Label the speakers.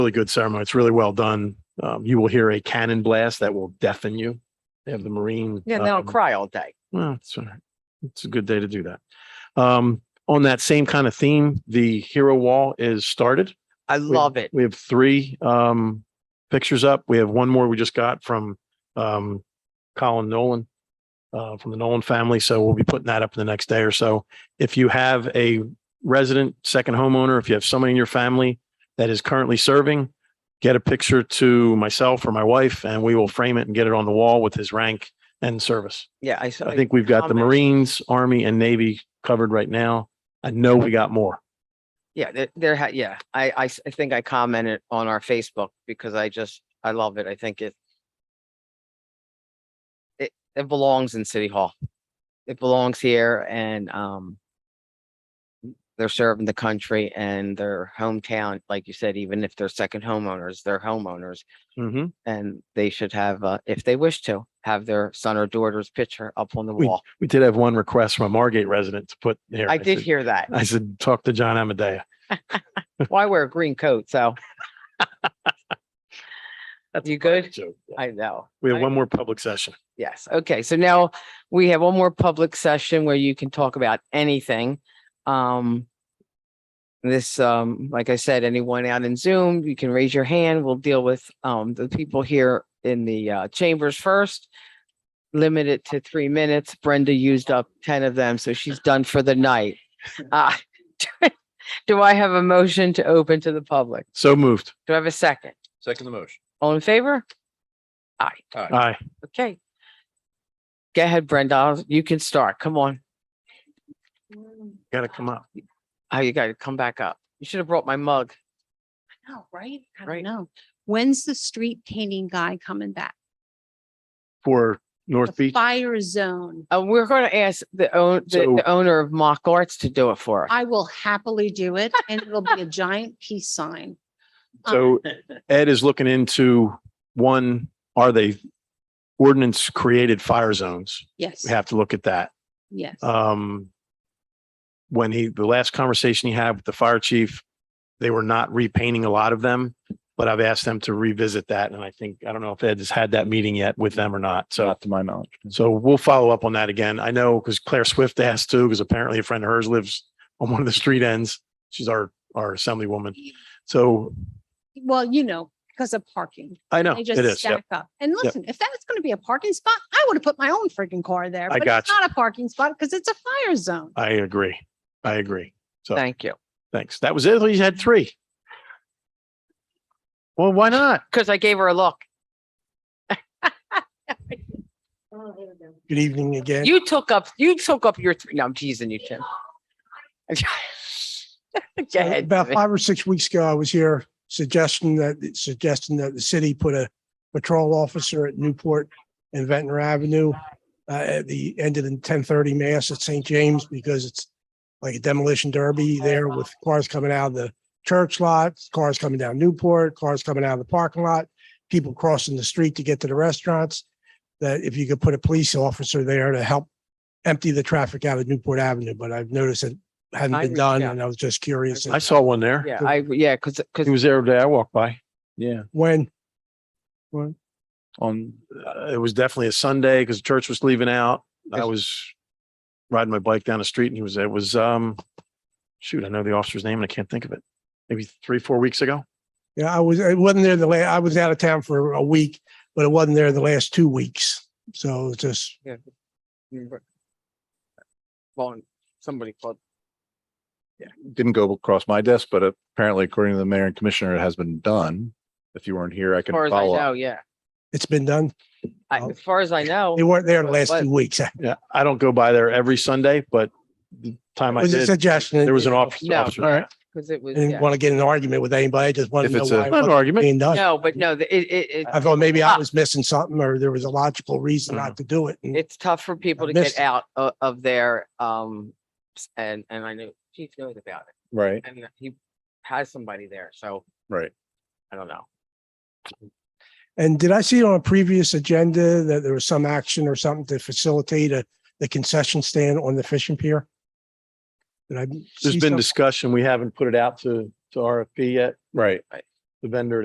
Speaker 1: really good ceremony. It's really well done. Um, you will hear a cannon blast that will deafen you. They have the Marine.
Speaker 2: Yeah, and they'll
Speaker 1: um,
Speaker 2: cry all day.
Speaker 1: Well, it's all right. It's a good day to do that. Um, on that same kind of theme, the hero wall is started.
Speaker 2: I
Speaker 1: We-
Speaker 2: love it.
Speaker 1: We have three um pictures up. We have one more we just got from um Colin Nolan uh from the Nolan family. So we'll be putting that up in the next day or so. If you have a resident, second homeowner, if you have somebody in your family that is currently serving, get a picture to myself or my wife and we will frame it and get it on the wall with his rank and service.
Speaker 2: Yeah, I saw.
Speaker 1: I think we've got the
Speaker 2: Comments.
Speaker 1: Marines, Army and Navy covered right now. I know we got more.
Speaker 2: Yeah, there, there, ha- yeah, I, I, s- I think I commented on our Facebook because I just, I love it. I think it. It, it belongs in City Hall. It belongs here and, um. They're serving the country and their hometown, like you said, even if they're second homeowners, they're homeowners.
Speaker 1: Mm-hmm.
Speaker 2: And they should have, uh, if they wish to, have their son or daughter's picture up on the wall.
Speaker 1: We did have one request from a Margate resident to put here.
Speaker 2: I did
Speaker 1: said-
Speaker 2: hear that.
Speaker 1: I said, talk to John Amadea.
Speaker 2: Well, I wear a green coat, so. You good?
Speaker 1: So yeah.
Speaker 2: I know.
Speaker 1: we have
Speaker 2: I-
Speaker 1: one more public session.
Speaker 2: Yes, okay, so now we have one more public session where you can talk about anything. Um. This, um, like I said, anyone out in Zoom, you can raise your hand. We'll deal with, um, the people here in the, uh, chambers first. Limit it to three minutes. Brenda used up ten of them, so she's done for the night. Uh, Do I have a motion to open to the public?
Speaker 1: So moved.
Speaker 2: Do I have a second?
Speaker 3: Second the motion.
Speaker 2: All in favor?
Speaker 1: Aye.
Speaker 2: Okay. Go ahead, Brenda. I'll- You can start. Come on.
Speaker 4: Mm,
Speaker 1: Got to come up.
Speaker 2: Oh, you gotta come back up. You should have brought my mug.
Speaker 4: know, oh, right? I
Speaker 2: Right.
Speaker 4: don't know. When's the street painting guy coming back?
Speaker 1: For North
Speaker 4: The
Speaker 1: Beach.
Speaker 4: fire zone.
Speaker 2: Uh, we're gonna ask the own, the,
Speaker 1: So-
Speaker 2: the owner of Mock Arts to do it for us.
Speaker 4: I will happily do it and it'll be a giant peace sign. Uh,
Speaker 1: So Ed is looking into one, are they ordinance created fire zones?
Speaker 4: Yes,
Speaker 1: We have to look at that.
Speaker 4: yes.
Speaker 1: um, when he, the last conversation he had with the fire chief, they were not repainting a lot of them, but I've asked them to revisit that. And I think, I don't know if Ed has had that meeting yet with them or not. So,
Speaker 3: Not to my knowledge.
Speaker 1: so we'll follow up on that again. I know because Claire Swift asked too, because apparently a friend of hers lives on one of the street ends. She's our, our assemblywoman. So
Speaker 4: Well, you know, because of parking.
Speaker 1: I know
Speaker 4: They
Speaker 1: Oh, it
Speaker 4: just
Speaker 1: is. Yep.
Speaker 4: stack up. And listen, if that was going to be a parking spot, I would have put my own freaking car there.
Speaker 1: I
Speaker 4: but it's
Speaker 1: got you.
Speaker 4: Not a parking spot because it's a fire zone.
Speaker 1: I agree. I agree. So
Speaker 2: Thank you.
Speaker 1: thanks. That was it. You had three. Well, why not?
Speaker 2: Cause I gave her a look.
Speaker 5: Good evening again.
Speaker 2: You took up, you took up your, three. no, I'm teasing you, Tim. Go
Speaker 5: Uh,
Speaker 2: ahead.
Speaker 5: About
Speaker 2: Jimmy.
Speaker 5: five or six weeks ago, I was here suggesting that, suggesting that the city put a patrol officer at Newport and Ventnor Avenue uh, at the end of the ten thirty mass at St. James because it's like a demolition derby there with cars coming out of the church lot, cars coming down Newport, cars coming out of the parking lot, people crossing the street to get to the restaurants. That if you could put a police officer there to help empty the traffic out of Newport Avenue, but I've noticed it hadn't
Speaker 2: I
Speaker 5: been
Speaker 2: reached
Speaker 5: done
Speaker 2: out.
Speaker 5: and I was just curious.
Speaker 1: I saw one there.
Speaker 2: Yeah, I, yeah, cause, cause
Speaker 1: He was there the day I walked by.
Speaker 3: Yeah,
Speaker 5: When,
Speaker 3: on,
Speaker 1: uh, it was definitely a Sunday because church was leaving out. I
Speaker 2: Yes.
Speaker 1: was riding my bike down the street and he was, it was, um, shoot, I know the officer's name and I can't think of it. Maybe three, four weeks ago.
Speaker 5: yeah, I was, I wasn't there the la, I was out of town for a week, but it wasn't there the last two weeks. So it's just,
Speaker 2: well, somebody called.
Speaker 3: didn't go across my desk, but apparently according to the mayor and commissioner, it has been done. If you weren't here, I
Speaker 2: As
Speaker 3: can
Speaker 2: far as I
Speaker 3: follow
Speaker 2: know,
Speaker 3: up.
Speaker 2: yeah.
Speaker 5: it's been done.
Speaker 2: I-
Speaker 5: Oh.
Speaker 2: As far as I know.
Speaker 5: They weren't there the last
Speaker 2: But-
Speaker 5: two weeks. It
Speaker 1: Yeah. I don't go by there every Sunday, but the time I
Speaker 5: was a
Speaker 1: did,
Speaker 5: suggestion.
Speaker 1: there was an office-
Speaker 2: No,
Speaker 1: officer.
Speaker 3: All right.
Speaker 2: Cause it
Speaker 5: I
Speaker 2: was, yeah.
Speaker 5: Didn't want to get in an argument with anybody. I Just wanted
Speaker 3: If
Speaker 5: to know
Speaker 3: it's a-
Speaker 5: why it
Speaker 1: Not an
Speaker 5: wasn't
Speaker 1: argument.
Speaker 5: being done.
Speaker 2: No, but no, the- it, it,
Speaker 5: I
Speaker 2: it,
Speaker 5: thought maybe I
Speaker 2: Ah.
Speaker 5: was missing something or there was a logical reason
Speaker 1: Mm.
Speaker 5: not to do it. And
Speaker 2: it's tough for people
Speaker 5: I
Speaker 2: to get
Speaker 5: missed it.
Speaker 2: out of, of their, um, s- and, and I knew Chief knows about it
Speaker 3: Right,
Speaker 2: and he has somebody there. So
Speaker 3: right.
Speaker 2: I don't know.
Speaker 5: And did I see on a previous agenda that there was some action or something to facilitate a, the concession stand on the fishing pier? Did I?
Speaker 1: there's
Speaker 5: see
Speaker 1: been
Speaker 5: something?
Speaker 1: discussion. We haven't put it out to, to RFP yet.
Speaker 3: Right.
Speaker 1: the vendor